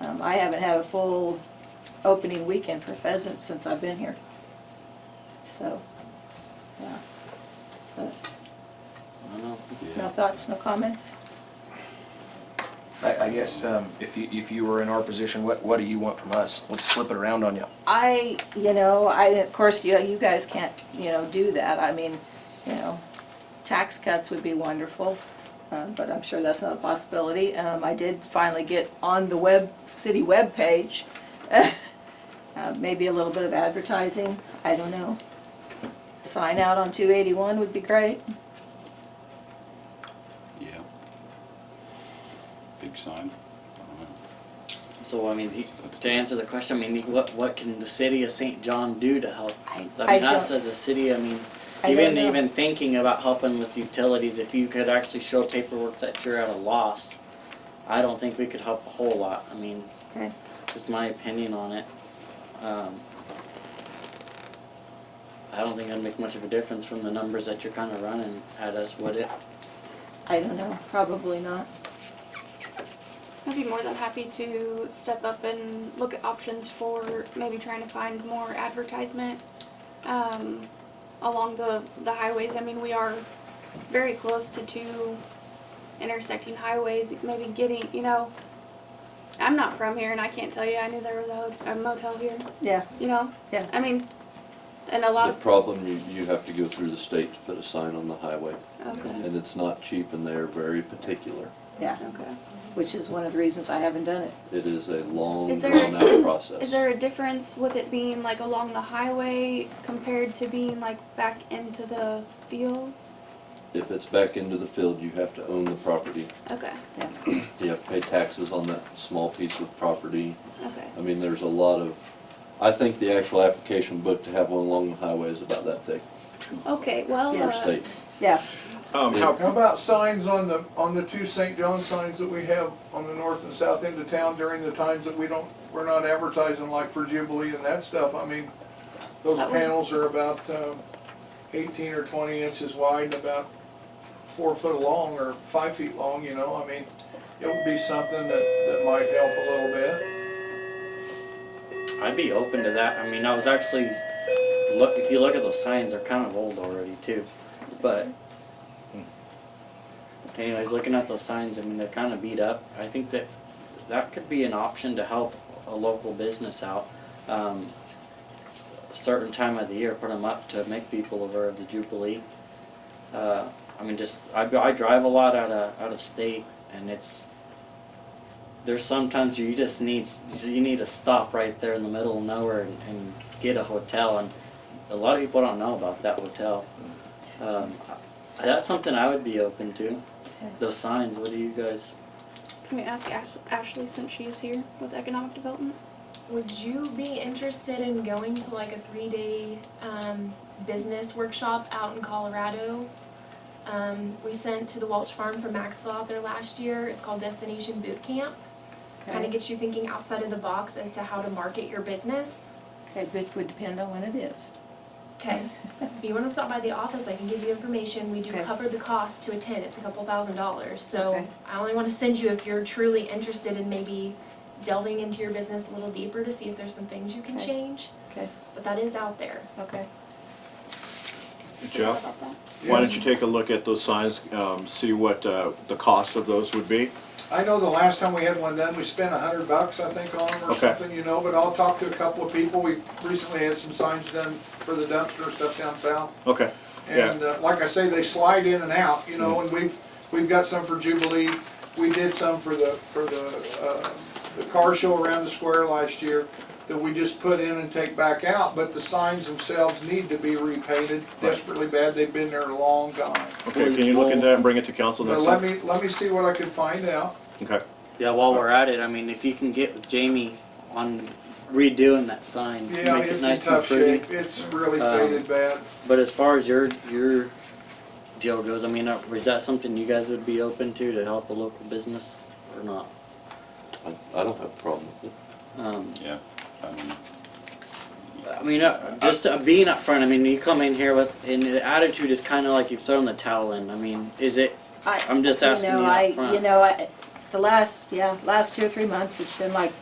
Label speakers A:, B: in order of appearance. A: Um, I haven't had a full opening weekend for pheasant since I've been here. So, yeah. But
B: I know.
A: no thoughts, no comments?
C: I, I guess, um, if you, if you were in our position, what, what do you want from us? Let's flip it around on you.
A: I, you know, I, of course, you, you guys can't, you know, do that. I mean, you know, tax cuts would be wonderful, uh, but I'm sure that's not a possibility. Um, I did finally get on the web, city webpage, uh, maybe a little bit of advertising, I don't know. Sign out on two eighty-one would be great.
D: Yeah. Big sign.
B: So I mean, he, to answer the question, I mean, what what can the city of St. John do to help?
A: I,
B: I
A: I
B: mean, us
A: don't,
B: as a city, I mean,
A: I don't
B: even
A: know.
B: even thinking about helping with utilities, if you could actually show paperwork that you're at a loss, I don't think we could help a whole lot. I mean,
A: Okay.
B: just my opinion on it. Um, I don't think it'd make much of a difference from the numbers that you're kind of running at us, would it?
A: I don't know, probably not.
E: I'd be more than happy to step up and look at options for maybe trying to find more advertisement um, along the, the highways. I mean, we are very close to two intersecting highways, maybe getting, you know, I'm not from here and I can't tell you. I knew there was a, ho- a motel here,
A: Yeah,
E: you know?
A: Yeah.
E: I mean, and a lot
F: The
E: of.
F: problem, you, you have to go through the state to put a sign on the highway,
E: Okay.
F: and it's not cheap, and they're very particular.
A: yeah,
E: Okay.
A: which is one of the reasons I haven't done it.
F: It is a long,
E: Is there-
F: drawn-out process.
E: Is there a difference with it being like along the highway compared to being like back into the field?
F: If it's back into the field, you have to own the property,
E: Okay,
F: you have to pay taxes on that small piece of property.
E: okay.
F: I mean, there's a lot of, I think the actual application book to have one along the highway is about that thick
E: Okay, well,
F: for
E: uh,
F: state.
A: Yeah,
G: Um,
F: how-
H: How about signs on the, on the two St. John signs that we have on the north and south end of town during the times that we don't, we're not advertising like for Jubilee and that stuff? I mean, those
E: That was-
H: panels are about um, eighteen or twenty inches wide and about four foot long or five feet long, you know? I mean, it would be something that, that might help a little bit.
B: I'd be open to that. I mean, I was actually look. If you look at those signs, they're kind of old already too. But anyways, looking at those signs, I mean, they're kind of beat up. I think that that could be an option to help a local business out. Um, a certain time of the year, put them up to make people aware of the Jubilee. Uh, I mean, just I, I drive a lot out of out of state, and it's there's sometimes you just need you need to stop right there in the middle of nowhere and, and get a hotel and a lot of people don't know about that hotel um, I- that's something i would be open to those signs what do you guys
E: can we ask Ash- Ashley since she is here with economic development?
I: Would you be interested in going to like a three day um, business workshop out in Colorado? Um, we sent to the Welch Farm from Maxville out there last year. It's called Destination Boot Camp. Kind of
A: okay,
I: gets you thinking outside of the box as to how to market your business.
A: okay, which would depend on when it is.
I: Okay. if you want to stop by the office, I can give you information. We do
A: Okay.
I: cover the cost to attend. It's a couple thousand dollars. So
A: Okay.
I: I only want to send you if you're truly interested in maybe delving into your business a little deeper to see if there's some things you can
A: Okay.
I: change.
A: Okay.
I: But that is out there.
A: Okay,
E: About
G: Jeff,
E: that.
G: why don't you take a look at those signs, um, see what, uh, the cost of those would be?
H: I know the last time we had one done, we spent a hundred bucks, I think, on them or
G: Okay.
H: something, you know, but I'll talk to a couple of people. We recently had some signs done for the dumpster and stuff down south.
G: Okay, Yeah.
H: And uh, like I say, they slide in and out, you know, and we've, we've got some for Jubilee. We did some for the, for the, uh, the car show around the square last year that we just put in and take back out, but the signs themselves need to be repainted desperately bad. They've been there a long time.
G: okay, can you look into that and bring it to council
H: But
G: next
H: let
G: time?
H: me, let me see what I can find out.
G: Okay,
B: yeah while we're at it i mean if you can get with jamie on redoing that sign
H: Yeah,
B: make it
H: it's in
B: nice
H: tough
B: and pretty
H: shape. It's really
B: Um,
H: faded bad.
B: but as far as your your deal goes i mean uh, is that something you guys would be open to to help a local business or not
F: I, I don't have a problem with it.
B: um,
D: Yeah, I mean,
B: I mean, uh, just uh, being up front. I mean, you come in here with, and the attitude is kind of like you've thrown the towel in. I mean, is it?
A: I,
B: I'm just
A: you
B: asking
A: know,
B: you up
A: I,
B: front.
A: you know, I, the last, yeah, last two or three months, it's been like